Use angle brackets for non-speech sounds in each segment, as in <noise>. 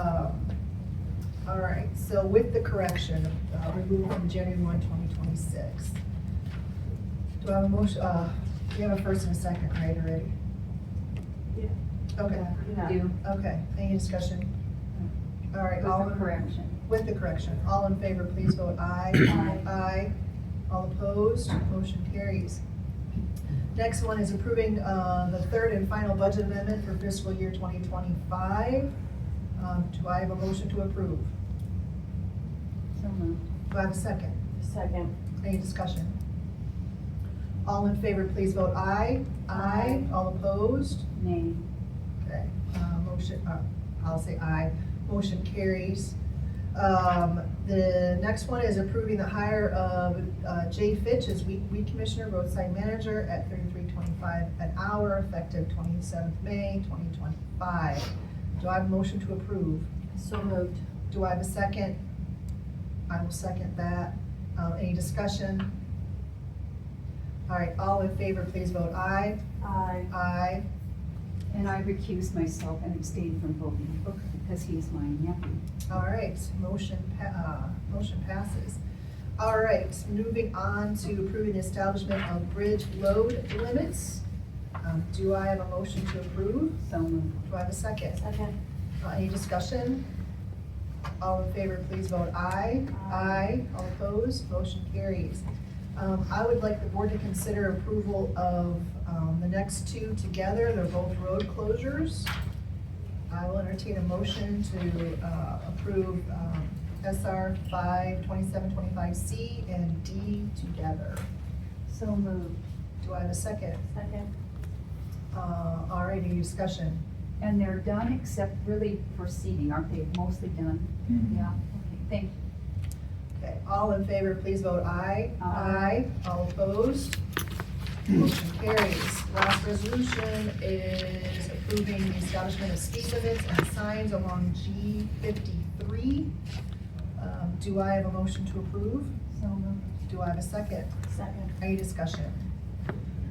Um, so with the correction, uh, removal from January one, twenty twenty-six. Do I have a motion, uh, we have a first and a second, right, already? Yeah. Okay, Do, okay, any discussion? All right, with all. the correction. With the correction, all in favor, please vote aye. Aye. Aye. All opposed, motion carries. Next one is approving uh, the third and final budget amendment for fiscal year 2025. Um, Do I have a motion to approve? So moved. Do I have a second? Second. Any discussion? All in favor, please vote aye. Aye. All opposed? Nay. Okay, uh, motion, uh, I'll say aye, motion carries. Um, the next one is approving the hire of, uh, Jay Fitch as weed, weed commissioner, roadside manager at thirty-three twenty-five an hour, effective twenty-seventh May, twenty twenty-five. Do I have a motion to approve? So moved. Do I have a second? I will second that. Uh, any discussion? All right, all in favor, please vote aye. Aye. Aye. And I recuse myself and abstain from voting Okay. because he is my nephew. All right, motion, pa- uh, motion passes. All right, moving on to approving the establishment of bridge load limits. Um, Do I have a motion to approve? So moved. Do I have a second? Second. Uh, Any discussion? All in favor, please vote aye. Aye. All opposed, motion carries. Um, I would like the board to consider approval of um, the next two together, they're both road closures. I will entertain a motion to uh, approve um, SR 52725C and D together. So moved. Do I have a second? Second. Uh, All right, any discussion? And they're done except really for seating, aren't they? Mostly done? Yeah. Okay, thank you. Okay, all in favor, please vote aye. Aye. All opposed? Motion carries. Last resolution is approving the establishment of speed limits and signs along G fifty-three. Um, Do I have a motion to approve? So moved. Do I have a second? Second. Any discussion?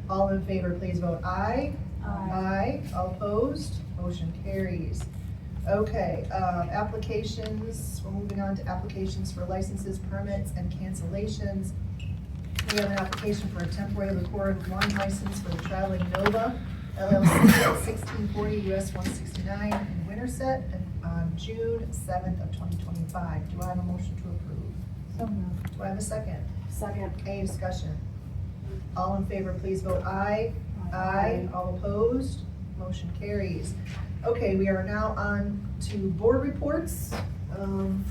All in favor, please vote aye. Aye. All opposed? Motion carries. Okay, uh, applications, we're moving on to applications for licenses, permits, and cancellations. We have an application for a temporary liquor and wine license for the Traveling Nova LLC at sixteen forty US one sixty-nine in Winterset on June seventh of twenty twenty-five. Do I have a motion to approve? So moved. Do I have a second? Second. Any discussion? All in favor, please vote aye. Aye. All opposed? Motion carries. Okay, we are now on to board reports. Um,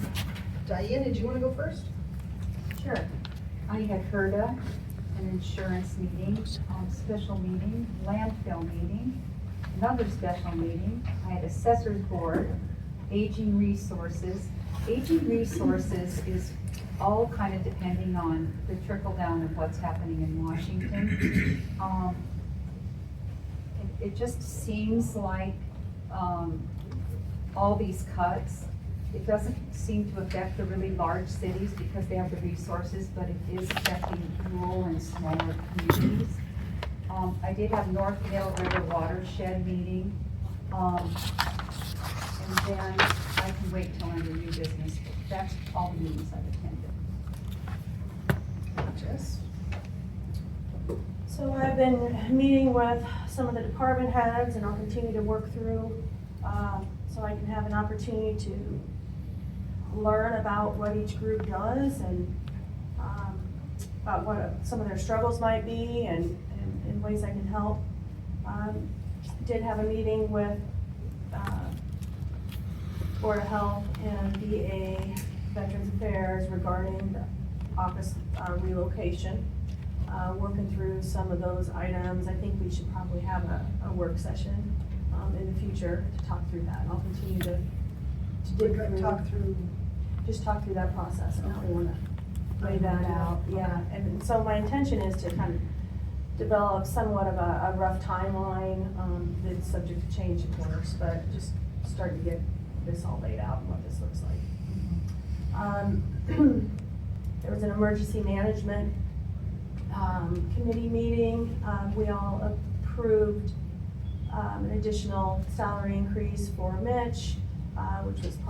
Diane, did you want to go first? Sure. I had heard of an insurance meeting, um, special meeting, landfill meeting, another special meeting. I had assessors board, aging resources. Aging resources is all kind of depending on the trickle down of what's happening in Washington. Um, it- It just seems like, um, all these cuts, it doesn't seem to affect the really large cities because they have the resources, but it is affecting rural and smaller communities. Um, I did have North Hill River Watershed meeting. Um, and then I can wait till I'm in new business. That's all the meetings I've attended. Jess? So I've been meeting with some of the department heads and I'll continue to work through, um, so I can have an opportunity to learn about what each group does and, um, about what some of their struggles might be and, and- and ways I can help. Um, Did have a meeting with, uh, Board of Health and VA Veterans Affairs regarding the office uh, relocation uh, working through some of those items. I think we should probably have a, a work session, um, in the future to talk through that. And I'll continue to, to dig through, Talk through. just talk through that process and how we wanna lay that out, yeah. And so my intention is to kind of develop somewhat of a, a rough timeline, um, that's subject to change of course, but just start to get this all laid out and what this looks like. Um, <clears throat> There was an emergency management um, committee meeting. Um, We all approved um, an additional salary increase for Mitch, uh, which was part